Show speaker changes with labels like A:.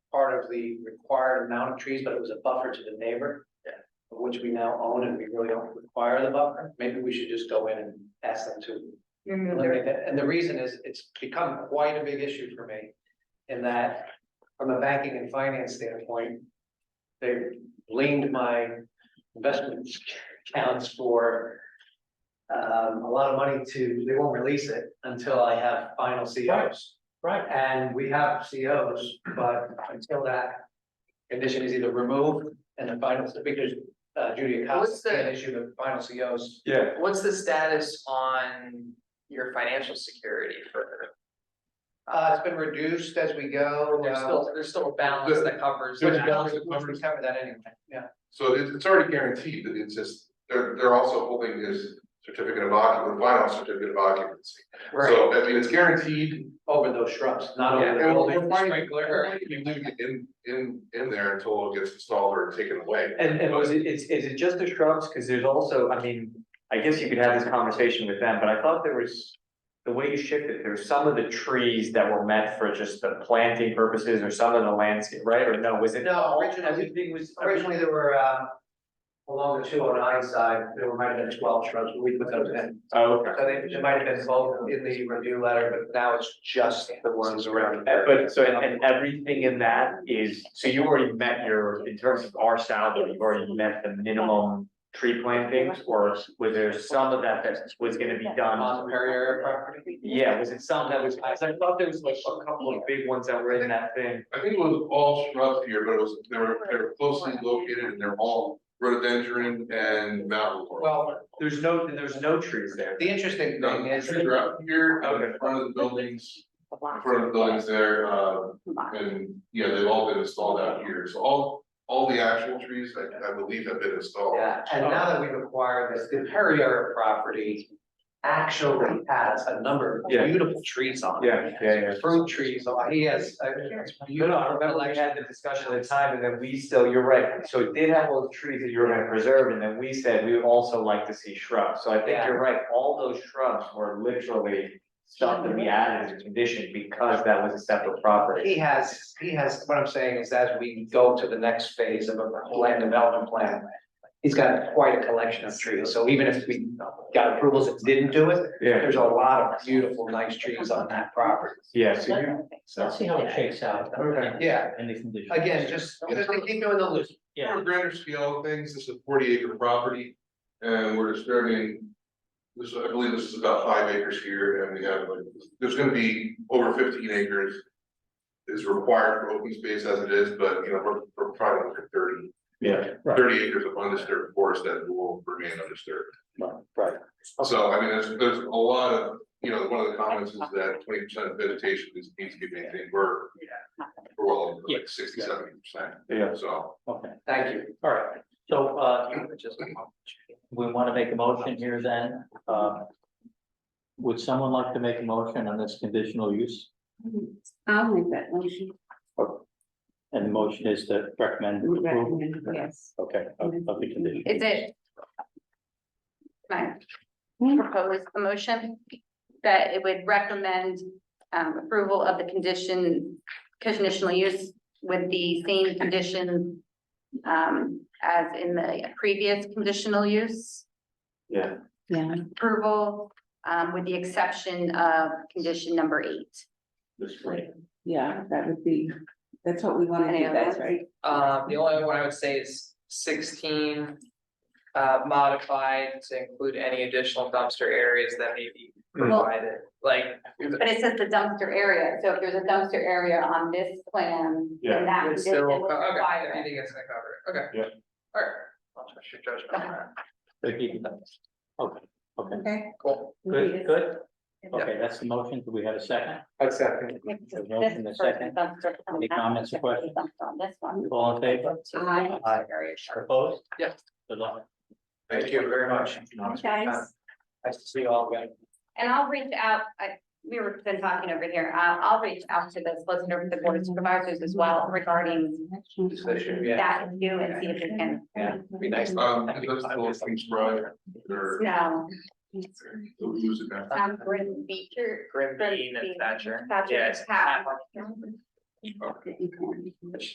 A: of the required amount of trees, but it was a buffer to the neighbor.
B: Yeah.
A: of Which we now own and we really don't require the buffer, maybe we should just go in and ask them to
C: Remove the
A: eliminate that, and the reason is, it's become quite a big issue for me. In that, from a banking and finance standpoint, they blamed my investment accounts for. Um, a lot of money to, they won't release it until I have final COs.
B: Right.
A: And we have COs, but until that condition is either removed and the final, because uh, Judy
B: What's
A: Acosta
B: the-
A: can't issue the final COs.
D: Yeah,
B: What's the status on your financial security for?
A: Uh, it's been reduced as we go.
B: There's
A: uh,
B: still, there's still a balance that covers.
A: Which
D: There's
B: that.
D: balance.
A: we which we covered that anyway, yeah.
D: so it's, it's already guaranteed, that it's just, they're, they're also holding this certificate of occupancy, final certificate of occupancy. So, I mean, it's guaranteed,
A: Over those shrubs, not over
B: Yeah,
A: the
D: and we'll-
A: building,
D: we'll find-
A: sprinkler.
D: Or you leave it in, in, in there until it gets installed or taken away.
E: And, and was it, is, is it just the shrubs? Cause there's also, I mean, I guess you could have this conversation with them, but I thought there was. The way you shifted, there were some of the trees that were meant for just the planting purposes or some of the landscape, right? Or no, was it?
A: No,
E: all-
A: originally-
E: Everything was.
A: Originally, there were, uh, along the two oh nine side, there might have been twelve shrubs, but we put those in.
E: Oh, okay.
A: So they, there might have been both in the review letter, but now it's just the ones around.
E: Uh, But so, and, and everything in that is, so you already met your, in terms of our salary, you've already met the minimum tree plantings? Or was there some of that that was gonna be done?
A: On the Perrier property.
E: Yeah, was it some that was, I thought there was like a couple of big ones that were in that thing.
D: I think it was all shrubs here, but it was, they were, they were closely located and they're all rhododendron and mountain laurel.
A: Well,
E: There's no, there's no trees there.
A: the interesting
D: No,
A: thing
D: the
A: is,
D: trees are up here, out in
E: Okay.
D: front of the buildings, in
C: block.
D: front of the buildings there, uh, and, yeah, they've all been installed out here, so all, all the actual trees, I, I believe have been installed.
A: yeah, and now that we've acquired this, the Perrier property actually has a number of
E: Yeah.
A: beautiful trees on it.
E: Yeah, yeah, yeah.
A: Fruit trees, oh, he has, uh, it's
E: No, no, I
A: beautiful,
E: remember we had the discussion at the time and then we still, you're right, so it did have all the trees that you were gonna preserve and then we said we would also like to see shrubs. So I think
A: Yeah.
E: you're right, all those shrubs were literally stuff that we added as a condition because that was a separate property.
A: He has, he has, what I'm saying is as we go to the next phase of a land development plan, he's got quite a collection of trees, so even if we got approvals that didn't do it,
E: Yeah,
A: there's a lot of beautiful, nice trees on that property.
E: yeah, so you,
F: Let's see how it shakes out.
E: Okay.
A: Yeah,
F: And the conditions.
A: again, just, just to keep you in the loop.
F: Yeah.
D: On a grander scale of things, this is a forty acre property, and we're disturbing. This, I believe this is about five acres here, and we have like, there's gonna be over fifteen acres. Is required for open space as it is, but you know, we're, we're probably looking at 30
E: yeah,
D: 30 acres of undisturbed forest that will remain undisturbed.
E: right.
D: So I mean, there's, there's a lot of, you know, one of the comments is that twenty percent of vegetation is needs to be maintained, we're. We're well, over, like sixty, seventy percent,
E: yeah.
D: so.
F: Okay,
A: Thank you.
F: all right. So, uh,
A: Just-
F: we want to make a motion here then, uh. Would someone like to make a motion on this conditional use?
C: I'll make that motion,
F: And the motion is to recommend approval,
C: recommend, yes.
F: okay, of, of the condition.
G: Is it? Can I propose a motion that it would recommend um approval of the condition, conditional use with the same condition um as in the previous conditional use
E: Yeah,
C: Yeah,
G: approval um with the exception of condition number eight.
E: that's right.
C: yeah, that would be, that's what we want to
G: Any
C: do, that's
G: others?
C: right.
B: Um, the only other one I would say is sixteen. Uh, modified to include any additional dumpster areas that may be provided, like.
G: But it says the dumpster area, so if there's a dumpster area on this plan,
E: Yeah.
G: then that
B: it's
G: this
B: still-
G: will
B: okay,
G: require it.
B: You think it's gonna cover it, okay.
E: Yeah.
B: Alright, I'll trust your judgment on that,
F: Okay, okay,
G: Okay.
B: cool.
F: good, good. Okay, that's the motion. Do we have a second?
A: Exactly.
F: A motion and a second. Any comments or questions?
G: On this one.
F: All in favor?
C: Aye.
F: Aye. Opposed?
B: Yeah.
F: Good luck.
A: Thank you very much.
C: Thanks, Guys.
A: Nice to see you all again.
G: And I'll reach out, I, we were been talking over here, uh, I'll reach out to the solicitor for the board of supervisors as well regarding
A: This issue, yeah.
G: that issue and see if we can.
A: Yeah, be nice.
D: Um, that's the little things, right, or
G: No,
D: the leaves and that.
G: um, Gordon Beecher.
B: Grim
G: Gordon
B: Bean and
G: Bean,
B: Thatcher.
G: Thatcher,
B: Yeah, it's-
G: Pat.
C: That you can-